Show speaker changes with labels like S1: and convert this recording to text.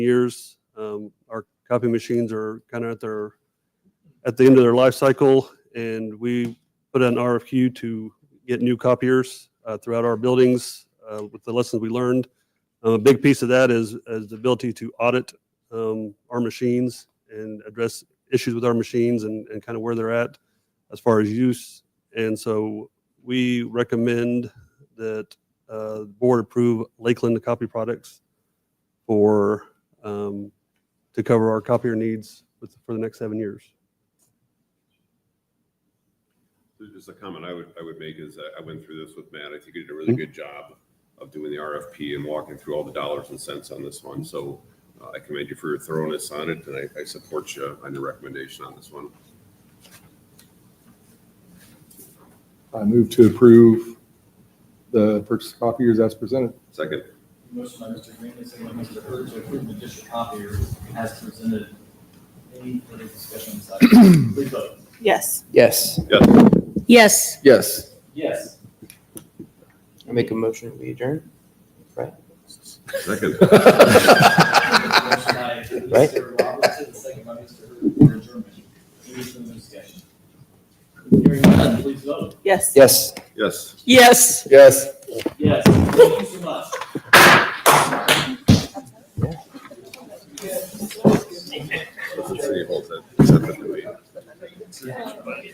S1: years. Um, Our copy machines are kind of at their, at the end of their life cycle, and we put an RFQ to get new copiers uh, throughout our buildings uh, with the lessons we learned. Uh, A big piece of that is, is the ability to audit um, our machines and address issues with our machines and, and kind of where they're at as far as use. And so we recommend that uh, the board approve Lakeland Copy Products for, um, to cover our copier needs with, for the next seven years.
S2: Just a comment I would, I would make is I- I went through this with Matt. I think he did a really good job of doing the RFP and walking through all the dollars and cents on this one. So uh, I commend you for your thoroughness on it and I, I support you on your recommendation on this one.
S3: I move to approve the purchase of copiers as presented.
S2: Second,
S4: Motion by Mr. Green, and second by Mr. Hurd to approve the district copier as presented. Any further discussion on this item? Please vote.
S5: Yes.
S6: Yes.
S2: yes,
S5: Yes.
S6: Yes.
S4: Yes.
S6: I make a motion, we adjourn.
S2: second.
S4: Motion by
S6: Right.
S4: Mr. Robertson, second by Mr. Hurd for adjournment. Any further discussion? Hearing none, please vote.
S5: Yes.
S6: Yes.
S2: Yes.
S5: Yes.
S6: Yes.
S4: Yes. Thank you so